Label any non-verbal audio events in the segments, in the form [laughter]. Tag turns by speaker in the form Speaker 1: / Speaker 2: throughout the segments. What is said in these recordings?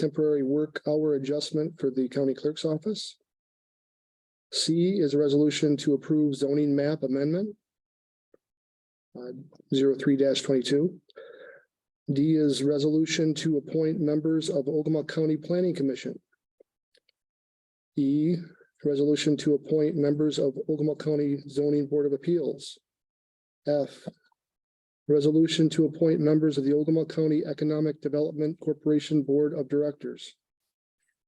Speaker 1: temporary work hour adjustment for the county clerk's office. C is a resolution to approve zoning map amendment. Uh, Zero three twenty-two. D is resolution to appoint members of Ogama County Planning Commission. E, resolution to appoint members of Ogama County Zoning Board of Appeals. F, Resolution to appoint members of the Ogama County Economic Development Corporation Board of Directors.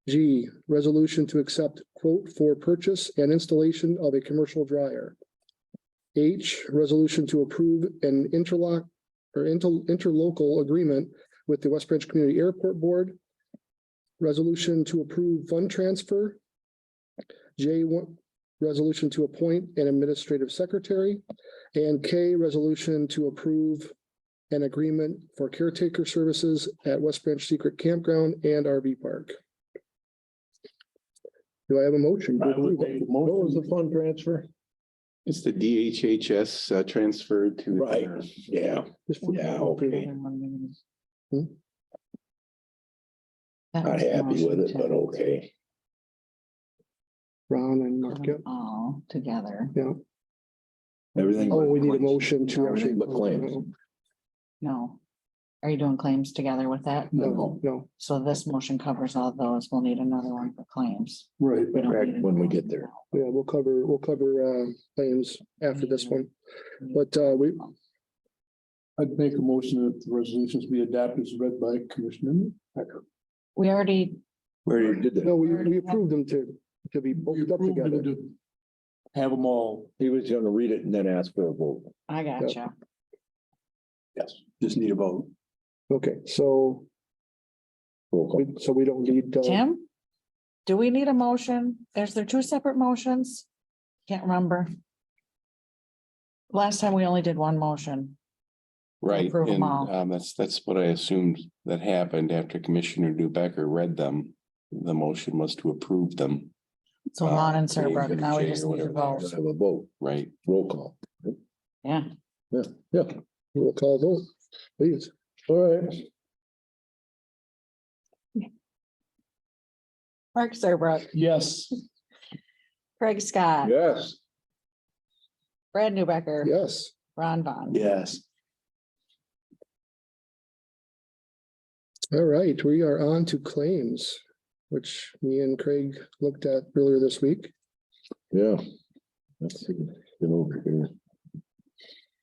Speaker 1: G, resolution to accept quote for purchase and installation of a commercial dryer. H, resolution to approve an interlock or inter- interlocal agreement with the West Branch Community Airport Board. Resolution to approve fund transfer. J, one, resolution to appoint an administrative secretary. And K, resolution to approve an agreement for caretaker services at West Branch Secret Campground and RV Park. Do I have a motion?
Speaker 2: I would make a
Speaker 3: What was the
Speaker 2: motion.
Speaker 3: fund transfer?
Speaker 4: It's the DHHS uh, transfer to.
Speaker 2: Right, yeah,
Speaker 1: Just-
Speaker 2: yeah, okay.
Speaker 1: Hmm?
Speaker 5: That
Speaker 2: Not
Speaker 5: was the
Speaker 2: happy with it,
Speaker 5: motion
Speaker 2: but
Speaker 5: to
Speaker 2: okay.
Speaker 1: Ron and
Speaker 5: put
Speaker 1: Mark, yeah.
Speaker 5: them All together.
Speaker 1: Yeah.
Speaker 2: Everything.
Speaker 1: Oh, we need a motion to.
Speaker 2: Everything but claims.
Speaker 5: No. Are you doing claims together with that?
Speaker 1: No, no,
Speaker 5: So this motion covers all those. We'll need another one for claims.
Speaker 2: Right.
Speaker 5: We don't need it
Speaker 2: When we
Speaker 5: now.
Speaker 2: get there.
Speaker 1: yeah, we'll cover, we'll cover uh claims after this one, but uh we,
Speaker 3: I'd make a motion that the resolutions be adopted as read by Commissioner. Becker.
Speaker 5: We already,
Speaker 2: We already did
Speaker 1: no,
Speaker 2: that.
Speaker 1: we we approved them to, to be booked up together.
Speaker 3: Have them all.
Speaker 2: He was gonna read it and then ask for a vote.
Speaker 5: I gotcha.
Speaker 3: Just need a vote.
Speaker 1: Okay, so,
Speaker 2: Roll call.
Speaker 1: we- so we don't need. uh,
Speaker 5: Tim? Do we need a motion? Is there two separate motions? Can't remember. Last time we only did one motion.
Speaker 4: Right,
Speaker 5: Approve 'em
Speaker 4: and
Speaker 5: all.
Speaker 4: um, that's, that's what I assumed that happened after Commissioner Newbecker read them. The motion was to approve them,
Speaker 5: So
Speaker 4: Uh,
Speaker 5: Lon and
Speaker 4: yeah, you
Speaker 5: Serbrook,
Speaker 4: gotta
Speaker 5: now we
Speaker 4: change
Speaker 5: just
Speaker 4: or
Speaker 5: need to
Speaker 4: whatever.
Speaker 5: vote.
Speaker 2: Let's Have a vote,
Speaker 4: right?
Speaker 2: roll call.
Speaker 5: Yeah,
Speaker 2: Yeah, yeah,
Speaker 1: We'll call vote, please.
Speaker 2: all right.
Speaker 5: Mark Serbrook,
Speaker 3: Yes.
Speaker 5: Craig Scott,
Speaker 2: Yes.
Speaker 5: Brad Newbecker.
Speaker 1: Yes,
Speaker 5: Ron Vaughn.
Speaker 3: Yes.
Speaker 1: all right, we are on to claims, which me and Craig looked at earlier this week.
Speaker 2: Yeah. Let's see, get over here.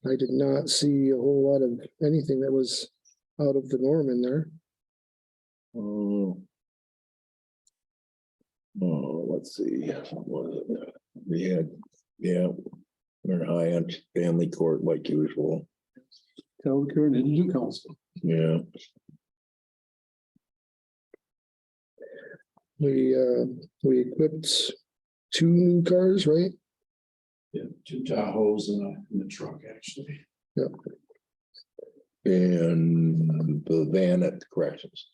Speaker 1: I did not see a whole lot of anything that was out of the norm in there.
Speaker 2: Oh. Oh, let's see, what was it? we had, yeah, we're high on family court like usual,
Speaker 3: Tell the current and new council.
Speaker 2: yeah.
Speaker 1: We, uh, we equipped two new cars, right?
Speaker 3: Yeah, two Tahoes and a, and a truck, actually.
Speaker 2: And the van at the corrections.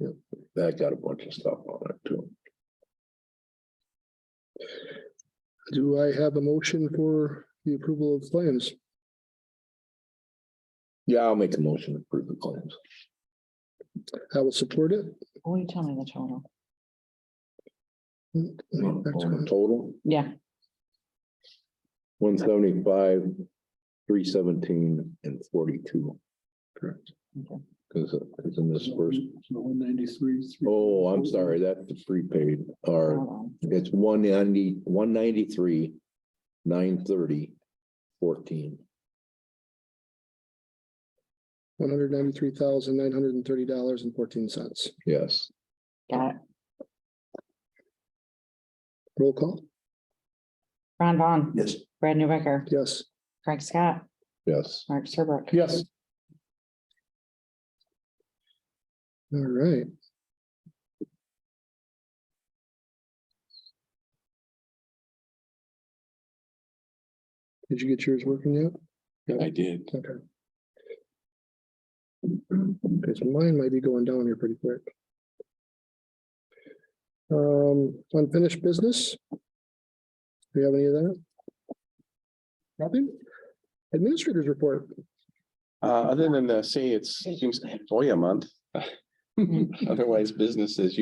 Speaker 1: Yep.
Speaker 2: That got a bunch of stuff on it too.
Speaker 1: Do I have a motion for the approval of claims?
Speaker 2: Yeah, I'll make a motion to approve the claims.
Speaker 1: I will support it.
Speaker 5: Will you tell me the total?
Speaker 2: On
Speaker 1: Back
Speaker 2: on the
Speaker 1: to-
Speaker 2: Total,
Speaker 5: Yeah,
Speaker 2: one seventy-five, three seventeen and forty-two. Correct.
Speaker 5: Okay.
Speaker 2: Cause, cause in this first,
Speaker 3: One ninety-three.
Speaker 2: oh, I'm sorry, that's the prepaid, or
Speaker 5: hold on.
Speaker 2: it's one ninety, one ninety-three, nine thirty, fourteen.
Speaker 1: 193,930 dollars and 14 cents.
Speaker 2: Yes,
Speaker 5: Got it.
Speaker 1: Roll call.
Speaker 5: Ron Vaughn,
Speaker 3: Yes.
Speaker 5: Brad Newbecker,
Speaker 1: Yes.
Speaker 5: Craig Scott,
Speaker 2: yes.
Speaker 5: Mark Serbrook.
Speaker 3: Yes.
Speaker 1: All right. Did you get yours working yet?
Speaker 4: I did.
Speaker 1: Okay. Okay, so mine might be going down here pretty quick. Um, unfinished business? Do you have any of that? Nothing? Administrators report.
Speaker 5: [laughs]
Speaker 2: [laughs]
Speaker 4: Uh, other than to say it's, it seems, oh yeah, month. Otherwise, business as usual.